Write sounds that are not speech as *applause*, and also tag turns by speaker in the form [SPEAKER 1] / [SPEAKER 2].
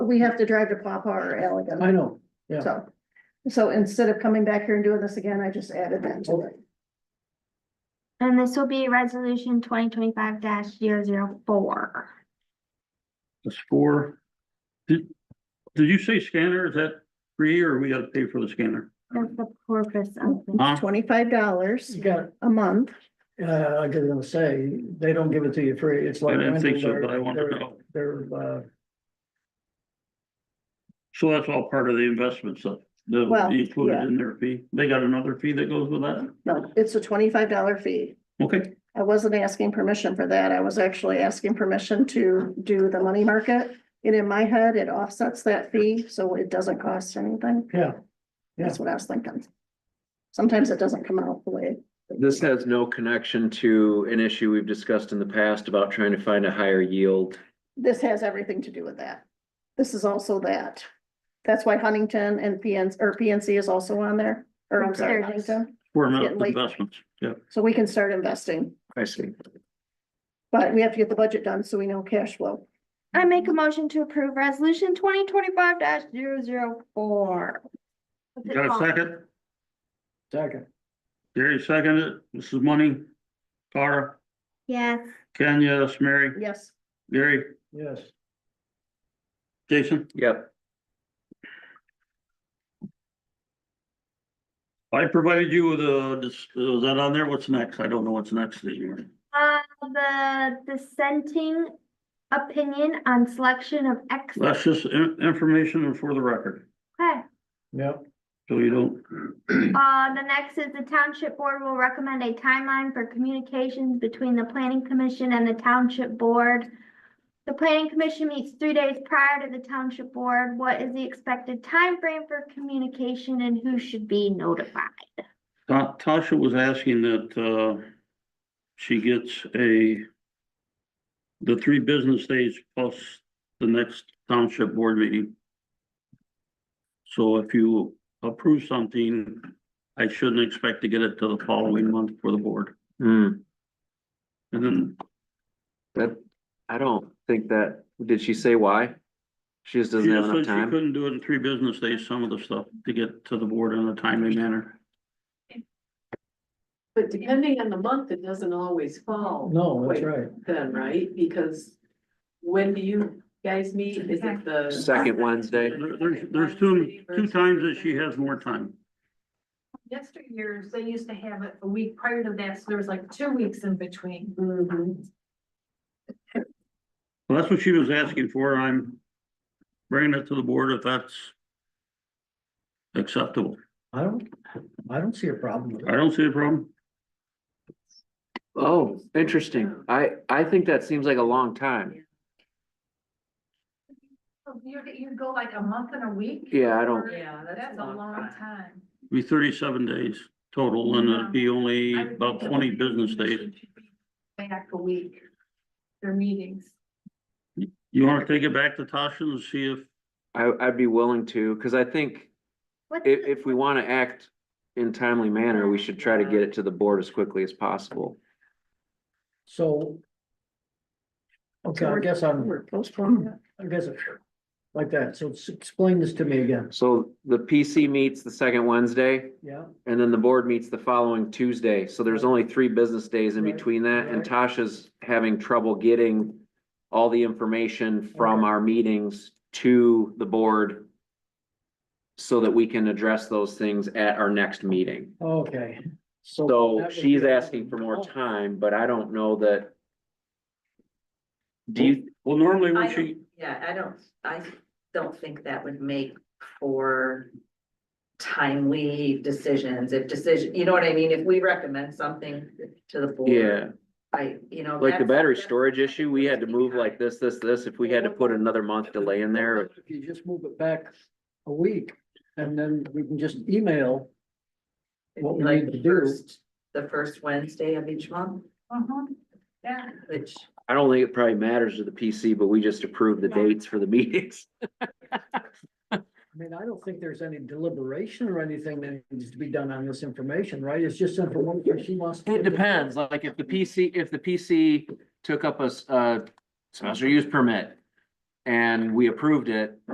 [SPEAKER 1] we have to drive to Papa or Allegan,
[SPEAKER 2] I know, yeah.
[SPEAKER 1] so. So instead of coming back here and doing this again, I just added that to it.
[SPEAKER 3] And this will be resolution twenty twenty-five 4
[SPEAKER 4] That's four. Did, did you say scanner? Is that free or we gotta pay for the scanner?
[SPEAKER 3] That's the purpose of the
[SPEAKER 4] Huh?
[SPEAKER 1] Twenty-five dollars
[SPEAKER 2] You got,
[SPEAKER 1] a month.
[SPEAKER 2] uh, I was gonna say, they don't give it to you free, it's
[SPEAKER 4] I
[SPEAKER 2] like.
[SPEAKER 4] didn't think so,
[SPEAKER 2] rental,
[SPEAKER 4] but I wanted to
[SPEAKER 2] they're-
[SPEAKER 4] know.
[SPEAKER 2] They're, uh,
[SPEAKER 4] So that's all part of the investment stuff. The,
[SPEAKER 1] Well,
[SPEAKER 4] included
[SPEAKER 1] yeah.
[SPEAKER 4] in their fee. They got another fee that goes with that?
[SPEAKER 1] No, it's a twenty-five dollar fee.
[SPEAKER 4] Okay,
[SPEAKER 1] I wasn't asking permission for that. I was actually asking permission to do the money market. And in my head, it offsets that fee, so it doesn't cost anything.
[SPEAKER 2] yeah,
[SPEAKER 1] That's what I was thinking. Sometimes it doesn't come out the way.
[SPEAKER 5] This has no connection to an issue we've discussed in the past about trying to find a higher yield.
[SPEAKER 1] This has everything to do with that. This is also that. That's why Huntington and PNC, or PNC is also on there, or I'm sorry,
[SPEAKER 3] There it is.
[SPEAKER 1] Huntington.
[SPEAKER 4] we're
[SPEAKER 1] Getting
[SPEAKER 4] not
[SPEAKER 1] late.
[SPEAKER 4] investments, yeah.
[SPEAKER 1] So we can start investing,
[SPEAKER 5] I see.
[SPEAKER 1] but we have to get the budget done so we know cash flow.
[SPEAKER 3] I make a motion to approve resolution twenty twenty-five 4
[SPEAKER 4] Got a second?
[SPEAKER 2] second,
[SPEAKER 4] Gary seconded. This is money. Cara,
[SPEAKER 3] Yes,
[SPEAKER 4] Ken, yes, Mary,
[SPEAKER 1] Yes,
[SPEAKER 4] Gary,
[SPEAKER 2] yes.
[SPEAKER 4] Jason.
[SPEAKER 5] Yep,
[SPEAKER 4] I provided you with a, this- is that on there? What's next? I don't know what's next anymore.
[SPEAKER 3] uh, the dissenting opinion on selection of ex.
[SPEAKER 4] That's just in- information and for the record,
[SPEAKER 3] Okay.
[SPEAKER 2] Yep,
[SPEAKER 4] so you don't.
[SPEAKER 3] Uh, the next is the township board will recommend a timeline for communications between the planning commission and the township board. The planning commission meets three days prior to the township board. What is the expected timeframe for communication and who should be notified?
[SPEAKER 4] Ta- Tasha was asking that, uh, she gets a, the three business days plus the next township board meeting. So if you approve something, I shouldn't expect to get it to the following month for the board.
[SPEAKER 5] hmm,
[SPEAKER 4] And then,
[SPEAKER 5] that, I don't think that, did she say why? She just
[SPEAKER 4] she
[SPEAKER 5] doesn't have
[SPEAKER 4] just said
[SPEAKER 5] enough
[SPEAKER 4] she
[SPEAKER 5] time?
[SPEAKER 4] couldn't do it in three business days, some of the stuff, to get to the board in a timely manner.
[SPEAKER 6] But depending on the month, it doesn't always fall.
[SPEAKER 2] no, that's
[SPEAKER 6] Wait,
[SPEAKER 2] right,
[SPEAKER 6] Then, right? Because when do you guys meet? Is it the?
[SPEAKER 5] Second Wednesday.
[SPEAKER 4] There- There's, there's two, two times that she has more time.
[SPEAKER 7] years, they used to have it a week prior to that, so there was like two weeks in between.
[SPEAKER 6] Mhm.
[SPEAKER 4] Well, that's what she was asking for. I'm bringing it to the board if that's acceptable.
[SPEAKER 2] I don't, I don't see a problem with
[SPEAKER 4] I
[SPEAKER 2] it.
[SPEAKER 4] don't see a problem.
[SPEAKER 5] Oh, interesting. I, I think that seems like a long time.
[SPEAKER 7] You, you go like a month and a week?
[SPEAKER 5] Yeah, I don't-
[SPEAKER 6] Yeah, that's
[SPEAKER 7] That's
[SPEAKER 6] a
[SPEAKER 7] a
[SPEAKER 6] long
[SPEAKER 7] long
[SPEAKER 6] time.
[SPEAKER 7] time.
[SPEAKER 4] It'd Be thirty-seven days total and it'd be only about twenty business days.
[SPEAKER 7] Back a week, their meetings.
[SPEAKER 4] You wanna take it back to Tasha and see if,
[SPEAKER 5] I, I'd be willing to, because I think
[SPEAKER 3] What's
[SPEAKER 5] if,
[SPEAKER 3] the-
[SPEAKER 5] if we want to act in timely manner, we should try to get it to the board as quickly as possible.
[SPEAKER 2] So. Okay, I guess I'm,
[SPEAKER 1] we're postponing. it.
[SPEAKER 2] I guess, it- like that, so s- explain this to me again,
[SPEAKER 5] So the PC meets the second Wednesday.
[SPEAKER 2] yeah,
[SPEAKER 5] And then the board meets the following Tuesday, so there's only three business days in
[SPEAKER 2] Right,
[SPEAKER 5] between that, and
[SPEAKER 2] right.
[SPEAKER 5] Tasha's having trouble getting. All the information from
[SPEAKER 2] Okay.
[SPEAKER 5] our meetings to the board. So that we can address those things at our next meeting,
[SPEAKER 2] okay.
[SPEAKER 5] so
[SPEAKER 2] Oh, that would
[SPEAKER 5] she's
[SPEAKER 2] be-
[SPEAKER 5] asking for more time, but I don't know that. Do you,
[SPEAKER 4] well, normally when
[SPEAKER 6] I
[SPEAKER 4] she,
[SPEAKER 6] don't- Yeah, I don't, I don't think that would make for timely decisions, if decision, you know what I mean? If we recommend something to the board.
[SPEAKER 5] yeah,
[SPEAKER 6] I, you know.
[SPEAKER 5] like the
[SPEAKER 6] that's-
[SPEAKER 5] battery
[SPEAKER 6] that's-
[SPEAKER 5] storage issue, we had to move like this, this, this, if we had to put another month delay in there.
[SPEAKER 2] If you just move it back a week, and then we can just email,
[SPEAKER 6] It'd
[SPEAKER 2] what
[SPEAKER 6] be
[SPEAKER 2] we
[SPEAKER 6] like
[SPEAKER 2] need to
[SPEAKER 6] the
[SPEAKER 2] do.
[SPEAKER 6] first- The first Wednesday of each month,
[SPEAKER 2] Uh-huh.
[SPEAKER 7] Mhm. Yeah.
[SPEAKER 6] which.
[SPEAKER 5] I don't think it probably matters to the PC, but we just approved the
[SPEAKER 3] Yeah.
[SPEAKER 5] dates for the *laughs* meetings.
[SPEAKER 2] I mean, I don't think there's any deliberation or anything that needs to be done on this information, right? It's just information she wants. to-
[SPEAKER 5] It depends, like if the PC, if the PC took up a, s- uh, special use permit and we approved it,